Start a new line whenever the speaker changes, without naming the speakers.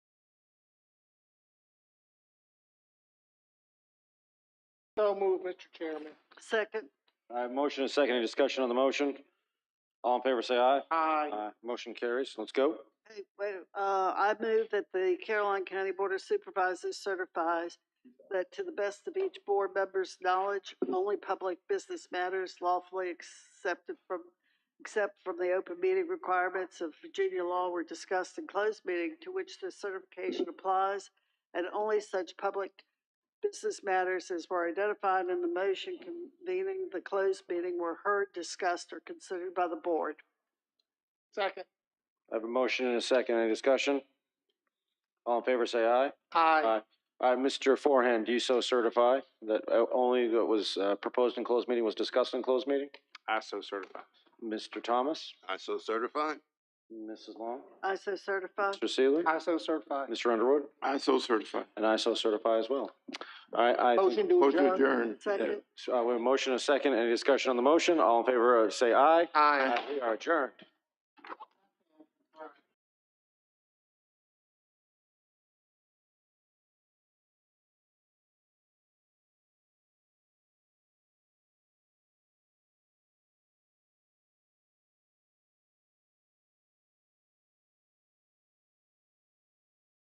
So moved, Mr. Chairman.
Second.
I have motion and second. Any discussion on the motion? All in favor, say aye.
Aye.
Aye. Motion carries. Let's go.
Hey, wait, uh, I move that the Caroline County Board of Supervisors certifies that to the best of each board member's knowledge, only public business matters lawfully accepted from, except from the open meeting requirements of Virginia law were discussed in closed meeting to which this certification applies, and only such public business matters as were identified in the motion convening the closed meeting were heard, discussed, or considered by the board.
Second.
I have a motion and a second. Any discussion? All in favor, say aye.
Aye.
Aye. All right, Mr. Forehand, do you so certify that uh, only that was uh, proposed in closed meeting was discussed in closed meeting?
I so certify.
Mr. Thomas?
I so certify.
Mrs. Long?
I so certify.
Mr. Seeley?
I so certify.
Mr. Underwood?
I so certify.
And I so certify as well. All right, I.
Motion
think-
to adjourn.
adjourn.
Second.
So, uh, we have a motion and a second. Any discussion on the motion? All in favor, uh, say aye.
Aye.
We are adjourned.